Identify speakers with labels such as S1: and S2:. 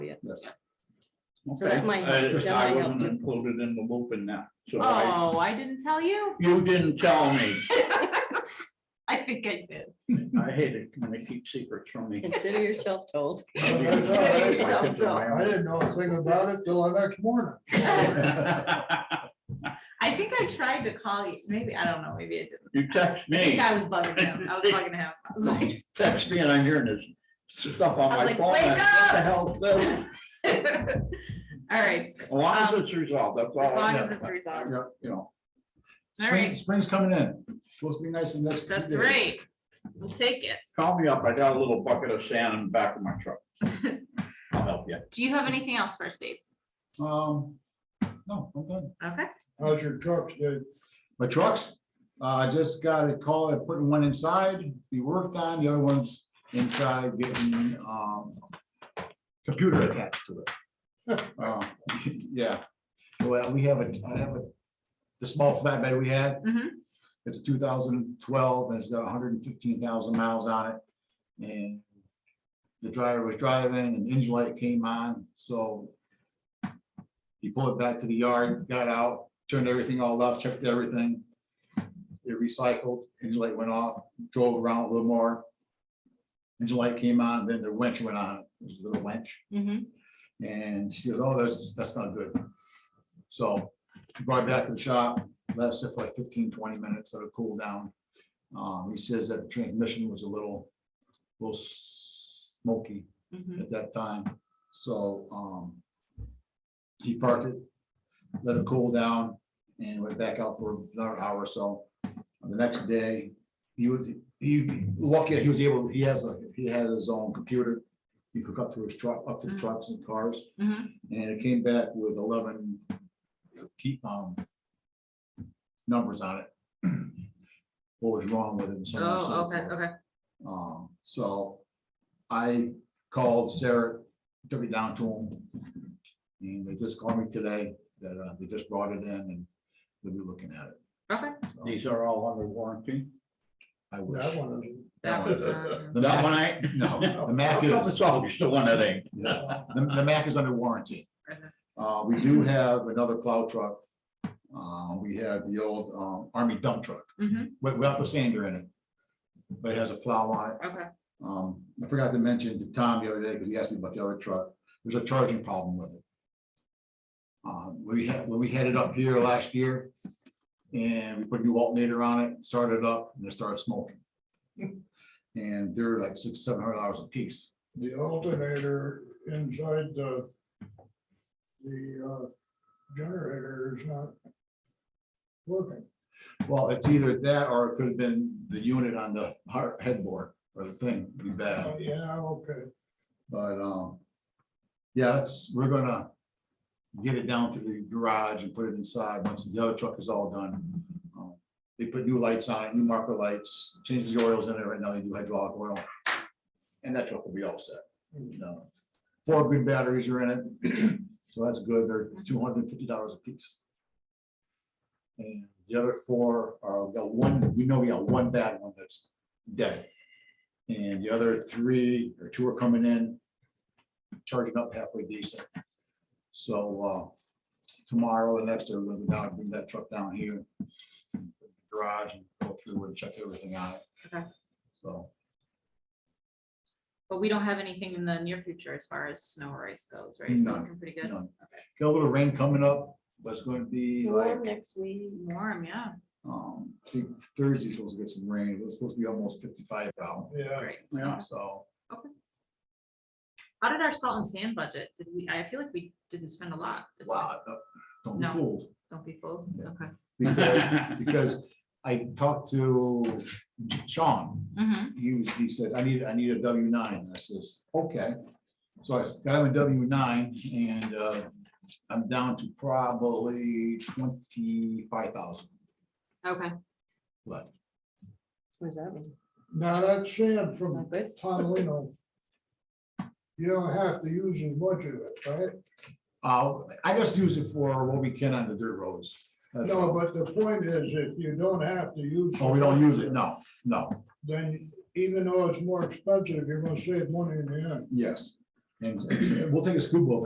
S1: So that
S2: Okay.
S1: might-
S2: I just-
S1: that
S2: I
S1: might help
S2: wasn't
S1: too.
S2: included in the loop in that, so I,
S3: Oh, I didn't tell you?
S2: you didn't tell me.
S3: I think I did.
S2: I hate it when they keep secrets from me.
S1: Consider yourself told.
S2: I kept it
S4: I
S2: around.
S4: didn't know a thing about it till the next morning.
S3: I think I tried to call you, maybe, I don't know, maybe I didn't.
S2: You text
S3: I think
S2: me,
S3: I was bugging him, I was bugging him. I was like-
S2: text me and I'm hearing this stuff on
S3: I
S2: my
S3: was like,
S2: phone. and
S3: "Wake
S2: What the hell is this?
S3: All right,
S2: As long as it's resolved, that's all.
S3: Um, as
S2: I
S3: long as
S2: have,
S3: it's resolved,
S2: You know,
S3: all
S4: Spring-
S3: right,
S4: Spring's coming in. Supposed to be nice in the next. few
S3: that's
S4: days.
S3: right, we'll take it.
S2: call me up. I got a little bucket of sand in the back of my truck. I'll help you.
S3: Do you have anything else for us, Dave?
S4: Um, no, I'm done.
S3: Okay,
S4: How's your trucks, dude? My trucks, uh, I just got a call, they're putting one inside, to be worked on, the other one's inside getting, um, computer attached to it. Uh, Yeah, well, we have a, I have a, the small flatbed we had.
S3: Mhm.
S4: It's two thousand twelve, and it's got hundred and fifteen thousand miles on it, and the driver was driving, and the engine light came on, so he pulled it back to the yard, got out, turned everything all off, checked everything. It recycled, engine light went off, drove around a little more. Engine light came on, then the winch went on, it was a little winch,
S3: Mhm.
S4: and she goes, oh, that's, that's not good. So brought it back to the shop, lasted for like 15, 20 minutes, sort of cooled down. Um, he says that the transmission was a little, little smoky
S3: Mhm.
S4: at that time, so, um. He parked it, let it cool down, and went back out for another hour or so. The next day, he was, he, lucky, he was able, he has, a he had his own computer. He could up to his truck, up to
S3: Mhm.
S4: trucks and cars,
S3: Mhm.
S4: and it came back with eleven keep, um. Numbers on it. What was wrong with it and so on and so
S3: Oh, okay,
S4: forth.
S3: okay,
S4: Um, so I called Sarah, took it down to him. And they just called me today that uh, they just brought it in and they'll be looking at it.
S3: okay.
S4: So,
S2: These are all under warranty.
S4: I wish.
S5: That one is-
S3: That was, uh,
S4: The
S2: That one
S4: Mac,
S2: I.
S4: no, the Mac
S2: It's
S4: is,
S2: always the one that ain't.
S4: yeah, the, the Mac is under warranty.
S3: Okay.
S4: Uh, we do have another plow truck. Uh, we have the old, um, army dump truck
S3: mhm,
S4: with- without the sander in it. But it has a plow on it.
S3: okay,
S4: Um, I forgot to mention to Tom the other day, because he asked me about the other truck, there's a charging problem with it. Um, we had, when we had it up here last year, and we put a new alternator on it, started it up, and it started smoking. And they're like six, seven hundred dollars a piece.
S5: The alternator inside the, the uh, generator is not working.
S4: Well, it's either that, or it could have been the unit on the har- headboard, or the thing, be bad.
S5: Oh, Yeah, okay.
S4: But, um, yeah, that's, we're gonna get it down to the garage and put it inside once the other truck is all done. Um, They put new lights on it, new marker lights, change the oils in it. Right now they do hydraulic oil. And that truck will be all set. You know, Four good batteries are in it, so that's good. They're two hundred and fifty dollars a piece. And the other four are, we got one, we know we got one bad one that's dead. And the other three or two are coming in, charging up halfway decent. So uh, tomorrow and next, we're going to bring that truck down here. Garage and go through and check everything on it.
S3: Okay.
S4: So,
S3: but we don't have anything in the near future as far as snow or ice goes, right? It's
S4: No,
S3: looking Pretty
S4: you
S3: good,
S4: know, got a little rain coming up, but it's going to be like,
S1: Warm next week.
S3: warm, yeah.
S4: um, I think Thursday's supposed to get some rain. It was supposed to be almost fifty-five out,
S5: Yeah.
S3: Great.
S2: Yeah.
S4: so.
S3: How did our salt and sand budget? Did we, I feel like we didn't spend a lot. this year.
S4: Wow, don't be
S3: No.
S4: fooled.
S3: Don't be fooled.
S4: Yeah.
S3: Okay.
S4: Because, because I talked to Sean,
S3: Mm-hmm.
S4: he was, he said, I need, I need a W nine, And I says, okay. So I got him a W nine and uh, I'm down to probably twenty-five thousand
S3: Okay.
S4: left.
S1: Was that one?
S5: Now, that sand from
S1: Not good.
S5: Tomlino, you don't have to use as much of it, right?
S4: Uh, I just use it for what we can on the dirt roads. That's
S5: No,
S4: all.
S5: but the point is, if you don't have to use.
S4: Oh, we don't use it, no, no,
S5: Then even though it's more expensive, you're gonna save money in the end.
S4: yes. And and we'll take a scoop of